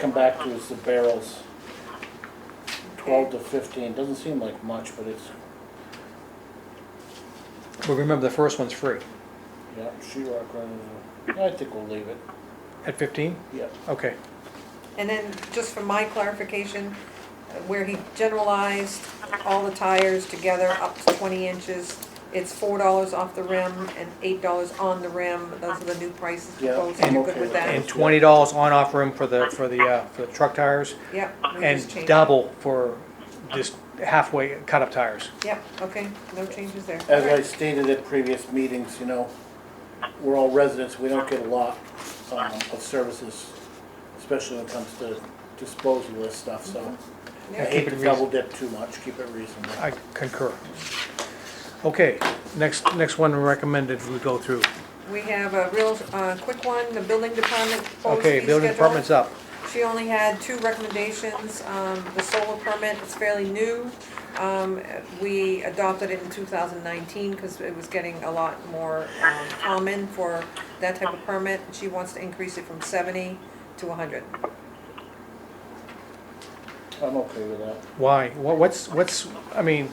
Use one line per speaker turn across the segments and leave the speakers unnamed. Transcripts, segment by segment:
come back to is the barrels. Twelve to fifteen, doesn't seem like much, but it's,
Well, remember, the first one's free.
yeah, sheet rock running, I think we'll leave it,
At 15?
yeah.
Okay.
And then, just for my clarification, uh, where he generalized all the tires together up to twenty inches, it's four dollars off the rim and eight dollars on the rim, those are the new prices
Yeah,
proposed,
I'm
you're
okay
good
with
with
that.
that?
And $20 on off room for the, for the, uh, for the truck tires,
Yep. no
and
change.
double for just halfway cut-up tires.
Yep, okay, no changes there.
As I stated at previous meetings, you know, we're all residents, we don't get a lot um, of services, especially when it comes to disposal of this stuff, so. I
Yeah.
hate
Keep it
to
reas-
double dip too much, keep it reasonable.
I concur. Okay, next, next one recommended we go through.
We have a real, uh, quick one, the building department
Oh,
proposed
Okay,
fee
building
schedule.
department's up.
She only had two recommendations, um, the solar permit is fairly new. Um, we adopted it in two thousand nineteen, cause it was getting a lot more, um, common for that type of permit. She wants to increase it from seventy to hundred.
I'm okay with that.
Why? Wha- What's, what's, I mean,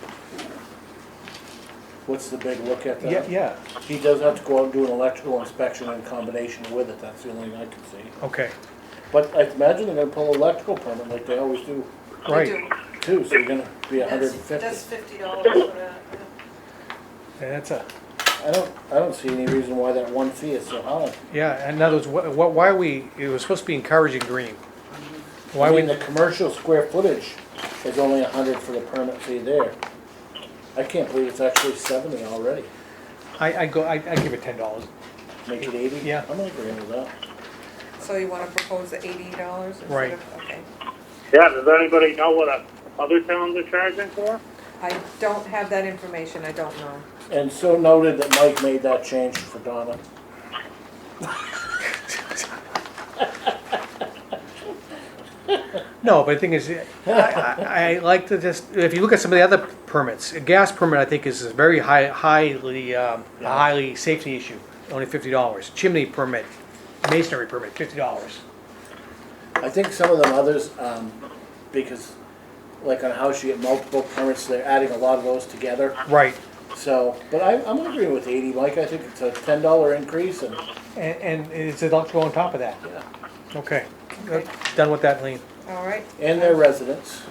What's the big look at
yeah,
that?
yeah,
He does have to go out and do an electrical inspection in combination with it, that's the only thing I can see.
okay,
But I imagine they're gonna pull electrical permit like they always do
right.
too, so you're gonna be a hundred
That's
and fifty.
fifty dollars for that.
Yeah, That's a,
I don't, I don't see any reason why that one fee is so high.
yeah, in other words, wha- wha- why we, it was supposed to be encouraging green. Why
I
we,
mean, the commercial square footage is only a hundred for the permit fee there. I can't believe it's actually seventy already.
I, I go, I, I give it $10.
Make it eighty?
Yeah.
I'm agreeing with that.
So you wanna propose the eighty dollars
Right.
instead of, okay.
Yeah, does anybody know what uh, other towns are charging for?
I don't have that information, I don't know.
And so noted that Mike made that change for Donna.
No, but the thing is, I, I, I like to just, if you look at some of the other permits, a gas permit, I think, is a very high, highly, um, a highly safety issue, only fifty dollars. Chimney permit, masonry permit, fifty dollars.
I think some of them others, um, because like on a house, you get multiple permits, they're adding a lot of those together.
Right,
So, but I, I'm agreeing with eighty, Mike, I think it's a ten dollar increase and,
and, and it's electrical on top of that,
yeah,
okay.
Okay.
Done with that, Lean.
All right,
and their residents.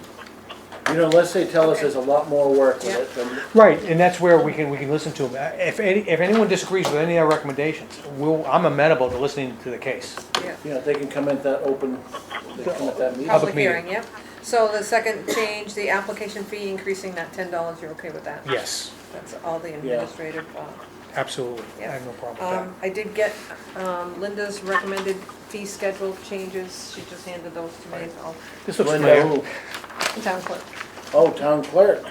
You know, unless they tell us there's a lot more work with it, then
Right, and that's where we can, we can listen to them. If any, if anyone disagrees with any of our recommendations, we'll, I'm amenable to listening to the case.
yeah.
You know, they can come at that open, they come at that meeting.
Public
Public
meeting.
hearing, yep. So the second change, the application fee increasing that ten dollars, you're okay with that?
Yes,
That's all the administrative, uh,
absolutely. I have no problem
um, I did get, um, Linda's recommended fee schedule changes, she just handed those to me, so,
with that. This looks
Linda,
familiar.
who?
town clerk.
Oh, town clerk.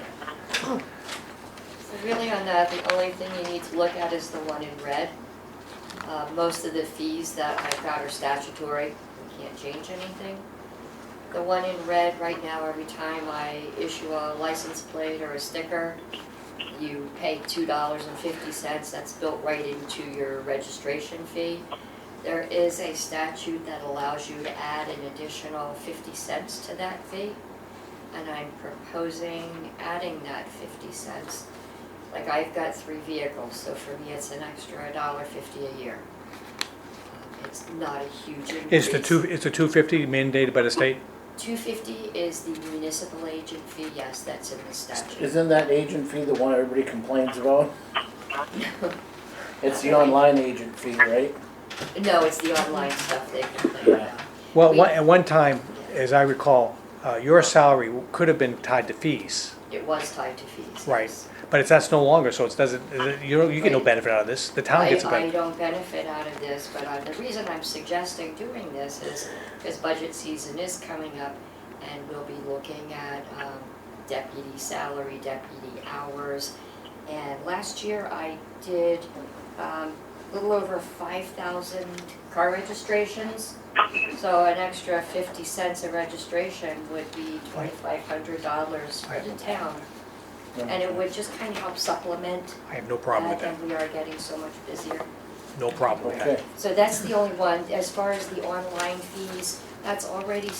So really on that, the only thing you need to look at is the one in red. Uh, Most of the fees that I've got are statutory, we can't change anything. The one in red right now, every time I issue a license plate or a sticker, you pay two dollars and fifty cents, that's built right into your registration fee. There is a statute that allows you to add an additional fifty cents to that fee, and I'm proposing adding that fifty cents like I've got three vehicles, so for me, it's an extra dollar fifty a year. Um, It's not a huge increase.
It's the two, it's the two fifty mandated by the state?
Two fifty is the municipal agent fee, yes, that's in the statute.
Isn't that agent fee the one everybody complains about? It's the online agent fee, right?
No, it's the online stuff uh, they complain about.
Well,
We-
one- at one time, as I recall, uh, your salary could have been tied to fees,
It was tied to fees.
Right.
yes.
but it's, that's no longer, so it doesn't, you don't- you get no benefit out of this. The town
I,
gets a
I
benefit.
don't benefit out of this, but uh, the reason I'm suggesting doing this is because budget season is coming up and we'll be looking at um, deputy salary, deputy hours. And last year I did um, a little over five thousand car registrations. So an extra fifty cents a registration would be twenty-five hundred dollars for the town. And it would just kind of help supplement
I have no problem with
that,
that,
and we are getting so much busier.
no problem with that.
Okay.
So that's the only one. As far as the online fees, that's already